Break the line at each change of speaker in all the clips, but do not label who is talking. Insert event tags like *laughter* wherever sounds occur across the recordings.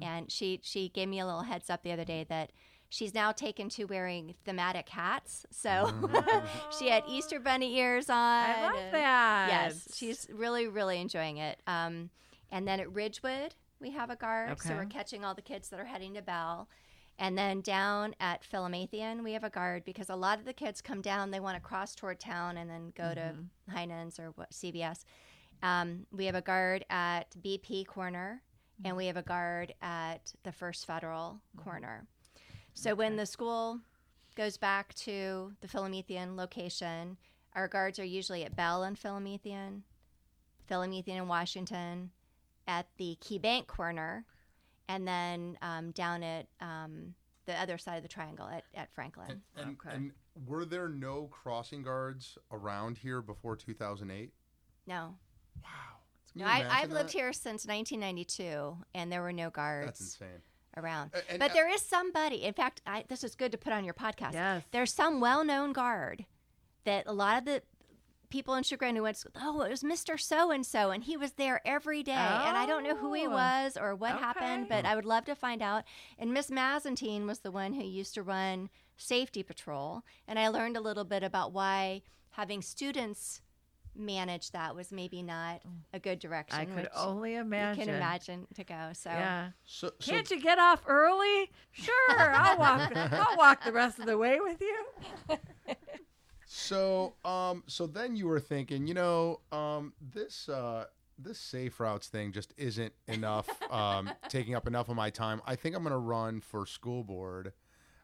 Mm. and she she gave me a little heads up the other day that she's now taken to wearing thematic hats. So *laughs* she had Easter bunny ears on.
Mm-hmm. I love
and-
that.
Yes, she's really really enjoying it. Um, and then at Ridgewood we have a guard, so
Okay.
we're catching all the kids that are heading to Bell. And then down at Philomathian, we have a guard because a lot of the kids come down. They want to cross toward town and then go
Mm-hmm.
to Heinen's or what, CBS. Um, we have a guard at BP Corner, and we have a guard at the First Federal Corner. So when the school goes back to the Philomethean location, our guards are usually at Bell and Philomethean, Philomethean and Washington, at the Key Bank corner, and then um, down at um, the other side of the triangle at, at Franklin.
And,
Okay.
and were there no crossing guards around here before 2008?
No,
Wow. Can
no,
you
I,
imagine
I've lived
that?
here since 1992, and there were no guards.
That's insane.
around.
A- and-
but
uh,
there is somebody. In fact, I, this is good to put on your podcast.
Yes.
There's some well-known guard that a lot of the people in Chagrin who went, oh, it was Mr. So and So, and he was there every day. And I don't know who he
Oh.
was or what happened,
Okay.
but I would love to find out. And Miss Mazantine was the one who used to run safety patrol, and I learned a little bit about why having students manage that was maybe not a good direction.
Oh, I could
which
only imagine.
You can imagine to go. So.
Yeah.
So, so
Can't you get off early? Sure, I'll
*laughs*
walk. I'll walk the rest of the way with you.
So, um, so then you were thinking, you know, um, this uh, this safe routes thing just isn't *laughs* enough, um, taking up enough of my time. I think I'm gonna run for school board.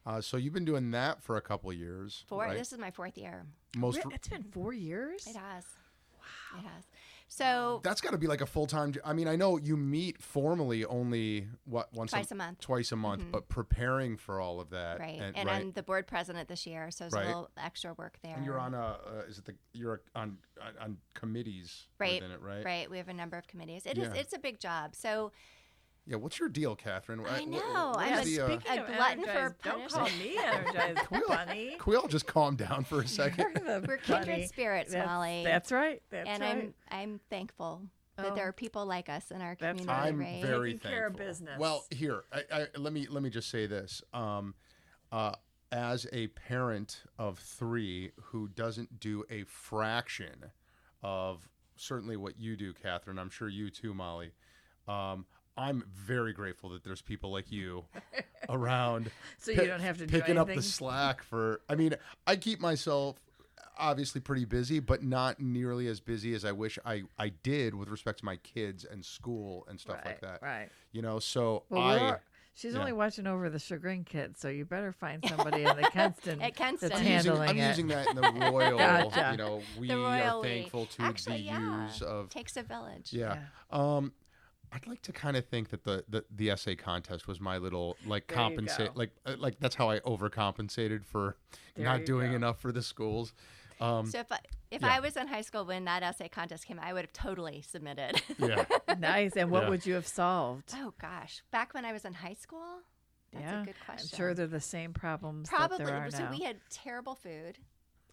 Uh, so you've been doing that for a couple years,
Four.
right?
This is my fourth year.
Most
Re- It's been four years.
It has. Wow. It has. So
that's got to be like a full time. I mean, I know you meet formally only what once
Twice a month.
twice a month, but preparing for all of that,
Mm-hmm. right,
and,
and,
right,
I'm the board president this year, so there's
Right.
a little extra work there.
and you're on a uh, is it the you're on on- on committees
Right,
within it,
right.
right?
We have a number of committees. It is.
Yeah.
It's a big job. So
Yeah, what's your deal, Catherine? Wha-
I
wha-
know,
what
I'm
is
a
the, uh, *laughs*
speak- A glutton for
energized, don't call
punishment.
me energized bunny.
Can we all just calm down for a
*laughs*
second?
we're kindred spirits,
that's,
Molly.
That's right. That's
and
right.
I'm I'm thankful
Oh.
that there are people like us in our
That's
community.
I'm
right?
very
Taking
thankful.
care of business.
Well, here, I, I, let me let me just say this. Um, uh, as a parent of three who doesn't do a fraction of certainly what you do, Catherine, I'm sure you too, Molly. Um, I'm very grateful that there's people like
*laughs*
you around.
So you
pick-
don't have to do
picking up the
anything?
slack for. I mean, I keep myself obviously pretty busy, but not nearly as busy as I wish I I did with respect to my kids and school and stuff
Right,
like that.
right.
You know, so
Well,
I.
we're all- she's
yeah.
only watching over the chagrin kids, so you better find somebody in
*laughs*
the Kenston
At Kenston.
that's
I'm using,
handling
I'm
it.
using that in the
*laughs*
royal,
Gotcha.
you know, we
The royal
are
we.
thankful to
Actually,
the
yeah.
use of.
takes a village.
Yeah. Um, I'd like to kind of think that the, the, the essay contest was my little like
There you
compensate
go.
like uh, like that's how I overcompensated for
There
not
you
doing
go.
enough for the schools. Um,
So if I, if
Yeah.
I was in high school when that essay contest came, I would have totally submitted.
*laughs*
*laughs*
yeah.
nice. And what
Yeah.
would you have solved?
Oh gosh, back when I was in high school, that's
yeah,
a good question.
I'm sure they're the same problems.
probably.
That there are
so
now.
we had terrible food,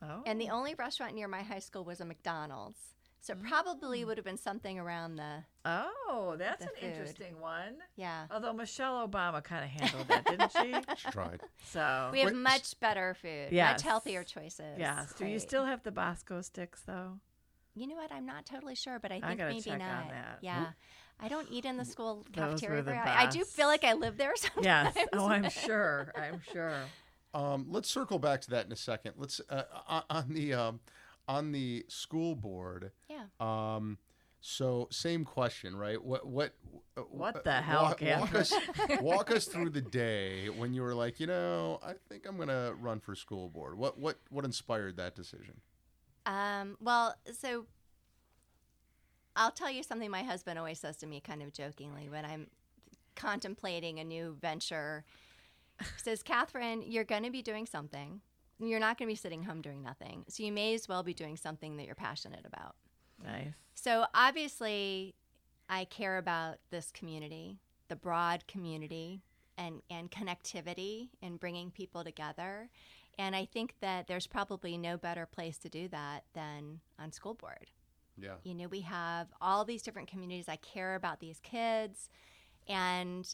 oh.
and the only restaurant near my high school was a McDonald's. So it probably
Mm.
would have been something around the
oh, that's
the
an
food.
interesting one.
yeah.
Although Michelle Obama kind of handled that,
*laughs*
didn't she? *laughs*
She tried.
So
We have
Wait, s-
much better food,
Uh, Yes.
much healthier choices.
yes. Do you
Right.
still have the Bosco sticks though?
You know what? I'm not totally sure, but I think
gotta
maybe
check on
not.
that.
Yeah. I don't eat in the school
Those were
cafeteria.
the
very I, I do feel like *laughs* I live there *laughs* sometimes.
Yes. oh, I'm sure. I'm sure.
Um, let's circle back to that in a second. Let's uh, on- on the um, on the school board.
Yeah.
Um, so same question, right? What what uh,
What
uh,
the hell,
Walk, walk
Catherine?
us
*laughs*
walk us through the day when you were like, you know, I think I'm gonna run for school board. What what what inspired that decision?
Um, well, so I'll tell you something my husband always says to me, kind of jokingly, when I'm contemplating a new venture. He says, Catherine, you're going to be doing something. You're not going to be sitting home doing nothing. So you may as well be doing something that you're passionate about.
Nice.
So obviously, I care about this community, the broad community, and, and connectivity and bringing people together. And I think that there's probably no better place to do that than on school board.
Yeah.
You know, we have all these different communities. I care about these kids. And